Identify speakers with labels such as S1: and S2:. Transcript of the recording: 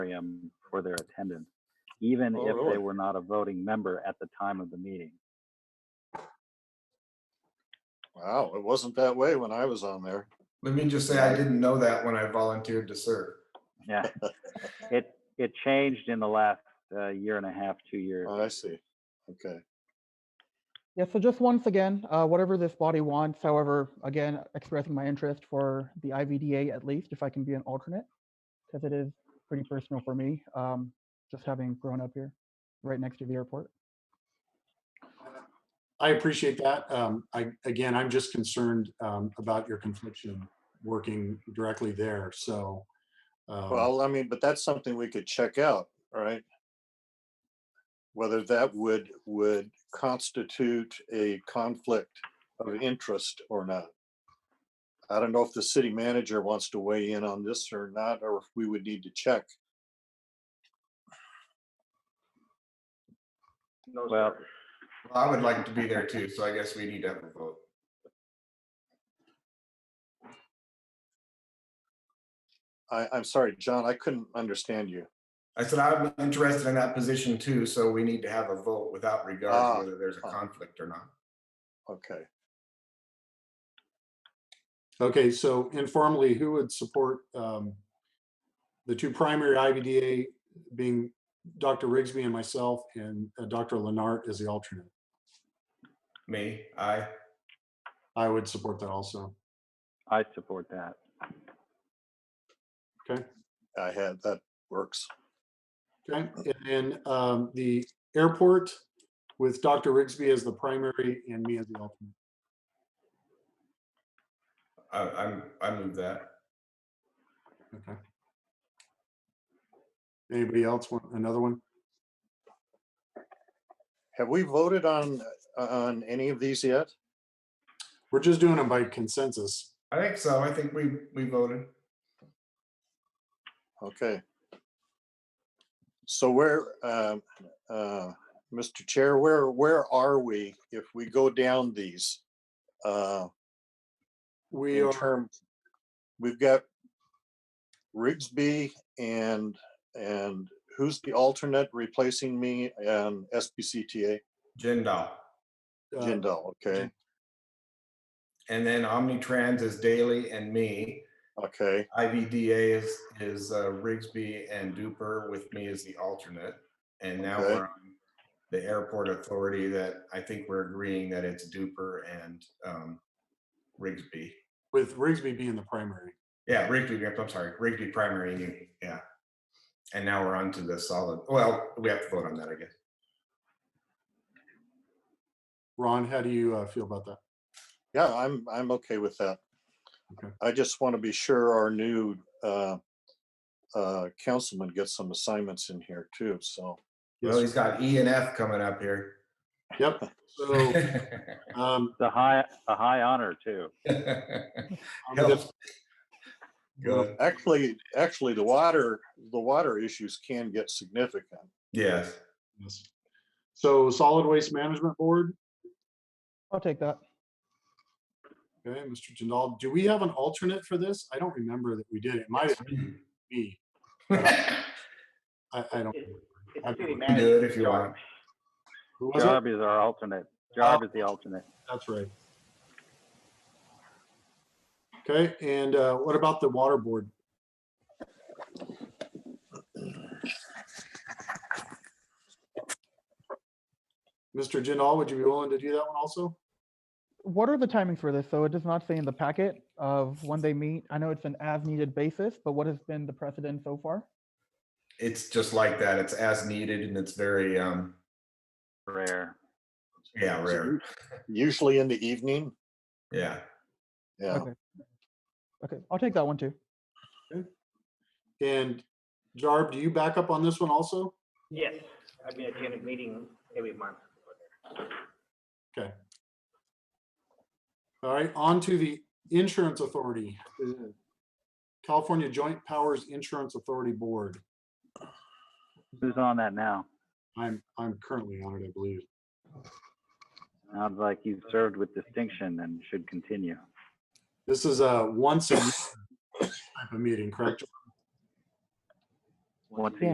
S1: moratorium um, for their attendance, even
S2: Oh,
S1: if they
S2: really?
S1: were not a voting member at the time of the meeting.
S2: Wow, it wasn't that way when I was on there.
S3: Let me just say, I didn't know that when I volunteered to serve.
S1: Yeah. It, it changed in the last uh, year and a half, two years.
S2: Oh, I see. Okay.
S4: Yeah, so just once again, uh, whatever this body wants, however, again, expressing my interest for the IVDA at least, if I can be an alternate, because it is pretty personal for me, um, just having grown up here, right next to the airport.
S5: I appreciate that. Um, I, again, I'm just concerned, um, about your confliction working directly there, so. um,
S2: Well, I mean, but that's something we could check out, right? Whether that would, would constitute a conflict of interest or not. I don't know if the city manager wants to weigh in on this or not, or if we would need to check.
S1: Well,
S3: Well, I would like to be there too, so I guess we need to have a vote.
S2: I, I'm sorry, John, I couldn't understand you.
S3: I said I'm interested in that position too, so we need to have a vote without regard
S2: Ah,
S3: to whether there's a
S2: ah.
S3: conflict or not.
S2: Okay.
S5: Okay, so informally, who would support, um, the two primary IVDA being Dr. Rigsby and myself and uh, Dr. Lennart as the alternate?
S3: Me, I,
S5: I would support that also.
S1: I support that.
S2: I had, that works.
S5: Okay, and then, um, the airport with Dr. Rigsby as the primary and me as the alternate.
S3: I, I'm, I move that.
S5: Okay. Anybody else want another one?
S2: Have we voted on, on any of these yet?
S5: We're just doing them by consensus.
S3: I think so. I think we, we voted.
S2: Okay. So where, um, uh, Mr. Chair, where, where are we if we go down these? uh,
S5: We
S2: In
S5: are,
S2: terms, we've got Rigsby and, and who's the alternate replacing me and SBCTA?
S3: Jindal.
S5: uh,
S2: Jindal, okay,
S3: And then Omnitrans is Daly and me.
S2: okay,
S3: IVDA is, is uh, Rigsby and Duper with me as the alternate. And now
S2: Okay.
S3: we're on the airport authority that I think we're agreeing that it's Duper and um, Rigsby.
S5: with Rigsby being the primary.
S3: Yeah, Rigsby, I'm sorry, Rigsby primary and you, yeah. And now we're on to the solid, well, we have to vote on that, I guess.
S5: Ron, how do you uh, feel about that?
S2: yeah, I'm, I'm okay with that.
S5: Okay.
S2: I just want to be sure our new, uh, uh, councilman gets some assignments in here too, so.
S3: Well,
S5: Yes.
S3: he's got E and F coming up here.
S5: Yep. So, um,
S1: It's a high, a high honor too.
S5: I'm
S3: Help.
S5: just-
S3: Good,
S2: Actually, actually, the water, the water issues can get significant.
S3: yes.
S5: yes. so solid waste management board.
S4: I'll take that.
S5: Okay, Mr. Jindal, do we have an alternate for this? I don't remember that we did. It might be. I, I don't. I-
S3: Do it if you want.
S5: who was it?
S1: Jarb is our alternate. Jarb is
S2: Oh.
S1: the alternate.
S5: That's right. Okay, and uh, what about the water board? Mr. Jindal, would you be willing to do that one also?
S4: What are the timings for this? So it does not say in the packet of when they meet. I know it's an as-needed basis, but what has been the precedent so far?
S3: It's just like that. It's as needed and it's very, um,
S1: Rare.
S3: yeah, rare.
S2: Usually in the evening,
S3: Yeah.
S2: yeah.
S4: Okay. Okay, I'll take that one too.
S5: And Jarb, do you back up on this one also?
S6: Yes, I've been attending a meeting every month.
S5: All right, on to the insurance authority. uh, California Joint Powers Insurance Authority Board.
S1: Who's on that now?
S5: I'm, I'm currently on it, I believe.
S1: Sounds like you've served with distinction and should continue.
S5: This is a once a year type of meeting, correct?
S7: once a
S1: Yeah.